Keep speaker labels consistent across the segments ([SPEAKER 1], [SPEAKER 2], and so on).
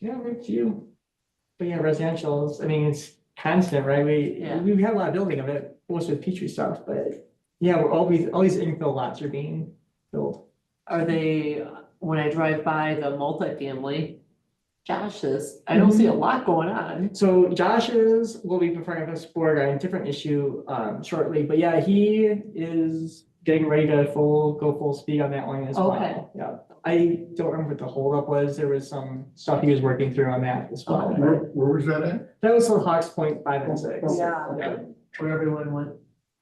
[SPEAKER 1] Yeah, very few. But yeah, residential's, I mean, it's constant, right? We,
[SPEAKER 2] Yeah.
[SPEAKER 1] we have a lot of building of it, most with Petri stuff, but yeah, we're always, all these infill lots are being built.
[SPEAKER 2] Are they, when I drive by the multifamily, Josh's, I
[SPEAKER 1] Mhm.
[SPEAKER 2] don't see a lot going on.
[SPEAKER 1] So Josh's will be preparing us for a different issue um shortly, but yeah, he is getting ready to full, go full speed on that one as
[SPEAKER 2] Okay.
[SPEAKER 1] well. Yeah, I don't remember what the holdup was. There was some stuff he was working through on that as well.
[SPEAKER 2] Okay.
[SPEAKER 3] Where, where was that at?
[SPEAKER 1] That was the Hawks Point five and six.
[SPEAKER 2] Yeah. Where everyone went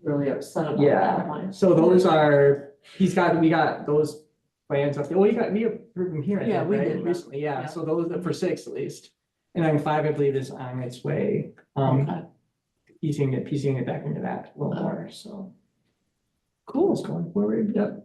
[SPEAKER 2] really upset about that
[SPEAKER 1] Yeah,
[SPEAKER 2] one.
[SPEAKER 1] so those are, he's got, we got those plans up there. Well, you got, we approved them here, I
[SPEAKER 2] Yeah,
[SPEAKER 1] think,
[SPEAKER 2] we
[SPEAKER 1] right,
[SPEAKER 2] did.
[SPEAKER 1] recently, yeah,
[SPEAKER 2] Yeah.
[SPEAKER 1] so those are for six at least. And then five, I believe, is on its way, um,
[SPEAKER 2] Okay,
[SPEAKER 1] piecing it, piecing it back into that a little more, so.
[SPEAKER 2] Cool.
[SPEAKER 1] It's going forward, yep.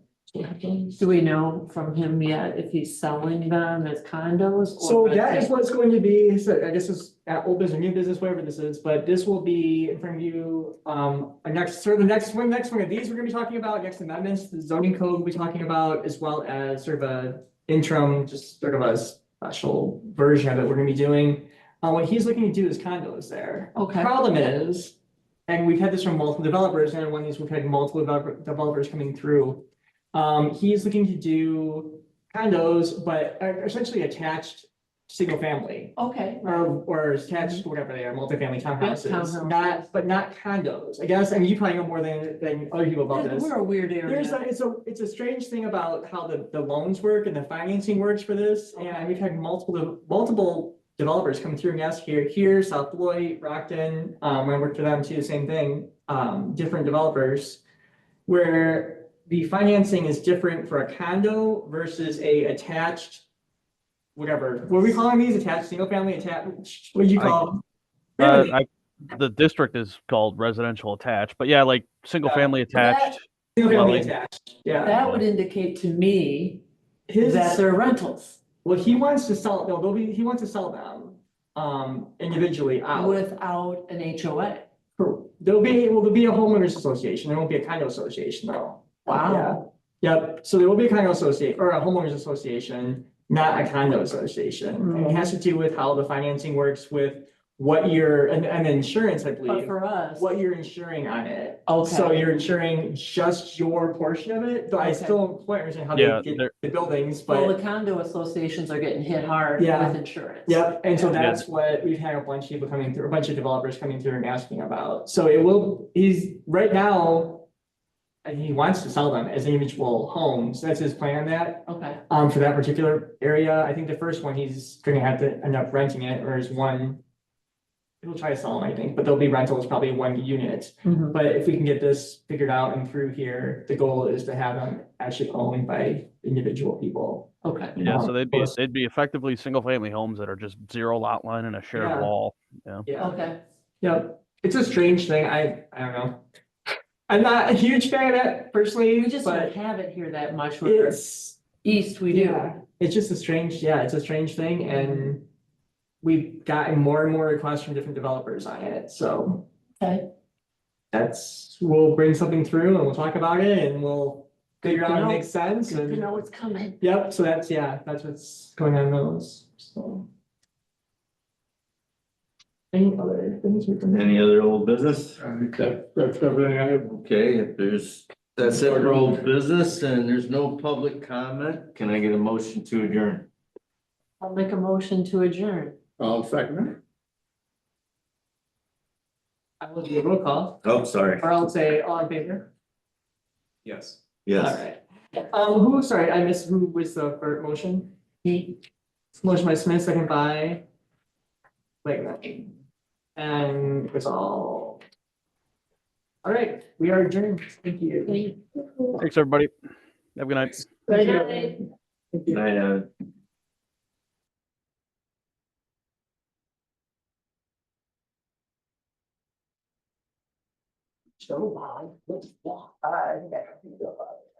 [SPEAKER 2] Do we know from him yet if he's selling them as condos? or
[SPEAKER 1] So that
[SPEAKER 2] renting?
[SPEAKER 1] is what it's going to be, so I guess it's at old business, new business, whatever this is, but this will be in front of you, um, a next, sort of the next one, next one of these we're gonna be talking about, next amendments, the zoning code we'll be talking about, as well as sort of a interim, just sort of a special version of it we're gonna be doing. Uh, what he's looking to do is condos there.
[SPEAKER 2] Okay.
[SPEAKER 1] Problem is, and we've had this from multiple developers, and one of these, we've had multiple developer- developers coming through. Um, he's looking to do condos, but are essentially attached, single family.
[SPEAKER 2] Okay,
[SPEAKER 1] Or,
[SPEAKER 2] right.
[SPEAKER 1] or attached, whatever they are, multifamily townhouses,
[SPEAKER 2] Mm-hmm. townhouses.
[SPEAKER 1] not, but not condos, I guess, I mean, you probably know more than, than other people about
[SPEAKER 2] Yeah,
[SPEAKER 1] this.
[SPEAKER 2] We're a weird area.
[SPEAKER 1] There's a, it's a, it's a strange thing about how the, the loans work and the financing works for this, and we've had multiple, de- multiple developers come through and ask here, here, South Beloit, Rockton, um, when I worked for them too, same thing, um, different developers. Where the financing is different for a condo versus a attached, whatever, what are we calling these, attached, single family, attached, what do you
[SPEAKER 4] I-
[SPEAKER 1] call? them?
[SPEAKER 4] Uh,
[SPEAKER 1] Really?
[SPEAKER 4] I, the district is called residential attached, but yeah, like single
[SPEAKER 1] Yeah.
[SPEAKER 4] family
[SPEAKER 2] that-
[SPEAKER 4] attached.
[SPEAKER 1] Single family
[SPEAKER 4] dwelling.
[SPEAKER 1] attached, yeah.
[SPEAKER 2] That would indicate to me
[SPEAKER 1] His-
[SPEAKER 2] that they're rentals
[SPEAKER 1] Well, he wants to sell, no, they'll be, he wants to sell them, um, individually out.
[SPEAKER 2] without an HOA.
[SPEAKER 1] There'll be, well, there'll be a homeowners association, there won't be a condo association though.
[SPEAKER 2] Wow.
[SPEAKER 1] Yeah. Yep, so there will be a condo associate, or a homeowners association, not a condo association. And it has to do with how the financing works with what your, and, and insurance, I
[SPEAKER 2] But
[SPEAKER 1] believe,
[SPEAKER 2] for us,
[SPEAKER 1] what you're insuring on it. So
[SPEAKER 2] okay,
[SPEAKER 1] you're insuring just your portion of it, though I
[SPEAKER 2] Okay.
[SPEAKER 1] still don't quite understand how
[SPEAKER 4] Yeah,
[SPEAKER 1] they get
[SPEAKER 4] they're-
[SPEAKER 1] the buildings, but.
[SPEAKER 2] well, the condo associations are getting hit hard
[SPEAKER 1] Yeah.
[SPEAKER 2] with insurance.
[SPEAKER 1] Yep, and so
[SPEAKER 4] Yeah.
[SPEAKER 1] that's what we've had a bunch of people coming through, a bunch of developers coming through and asking about. So it will, he's, right now, and he wants to sell them as individual homes. That's his plan on that,
[SPEAKER 2] Okay,
[SPEAKER 1] um, for that particular area. I think the first one, he's gonna have to end up renting it, or is one. He'll try to sell them, I think, but there'll be rentals, probably one unit.
[SPEAKER 2] Mhm.
[SPEAKER 1] But if we can get this figured out and through here, the goal is to have them actually owned by individual people.
[SPEAKER 2] okay,
[SPEAKER 4] Yeah, so
[SPEAKER 1] Um,
[SPEAKER 4] they'd be
[SPEAKER 1] plus-
[SPEAKER 4] they'd be effectively single family homes that are just zero lot line and a shared
[SPEAKER 1] Yeah.
[SPEAKER 4] wall.
[SPEAKER 1] Yeah.
[SPEAKER 2] okay.
[SPEAKER 1] Yep, it's a strange thing, I, I don't know. I'm not a huge fan of it personally,
[SPEAKER 2] We just don't
[SPEAKER 1] but
[SPEAKER 2] have it here that much, where
[SPEAKER 1] it's,
[SPEAKER 2] east we do.
[SPEAKER 1] yeah, it's just a strange, yeah, it's a strange thing and we've gotten more and more requests from different developers on it, so
[SPEAKER 2] Okay.
[SPEAKER 1] that's, we'll bring something through and we'll talk about it and we'll figure
[SPEAKER 2] to
[SPEAKER 1] out if it
[SPEAKER 2] know.
[SPEAKER 1] makes sense
[SPEAKER 2] You
[SPEAKER 1] and,
[SPEAKER 2] know it's coming.
[SPEAKER 1] yep, so that's, yeah, that's what's going on in those, so. Any other things we can?
[SPEAKER 5] Any other old business?
[SPEAKER 3] I think that, that's everything I have.
[SPEAKER 5] Okay, if there's, that's it for old business and there's no public comment, can I get a motion to adjourn?
[SPEAKER 2] I'll make a motion to adjourn.
[SPEAKER 3] I'll second
[SPEAKER 1] I will do a roll call,
[SPEAKER 5] Oh, sorry.
[SPEAKER 1] or I'll say all in favor.
[SPEAKER 3] Yes.
[SPEAKER 1] All
[SPEAKER 5] Yes.
[SPEAKER 1] right. Um, who, sorry, I missed, who was the first motion?
[SPEAKER 2] Me.
[SPEAKER 1] Motion by Smith, second by. Wait, and it's all. All right, we are adjourned. Thank you.
[SPEAKER 4] Thanks, everybody. Have a good night.
[SPEAKER 1] Thank you.
[SPEAKER 2] Bye.
[SPEAKER 1] Thank you.
[SPEAKER 5] Night, Evan.
[SPEAKER 1] So, uh, let's walk. Uh, I think I have to go.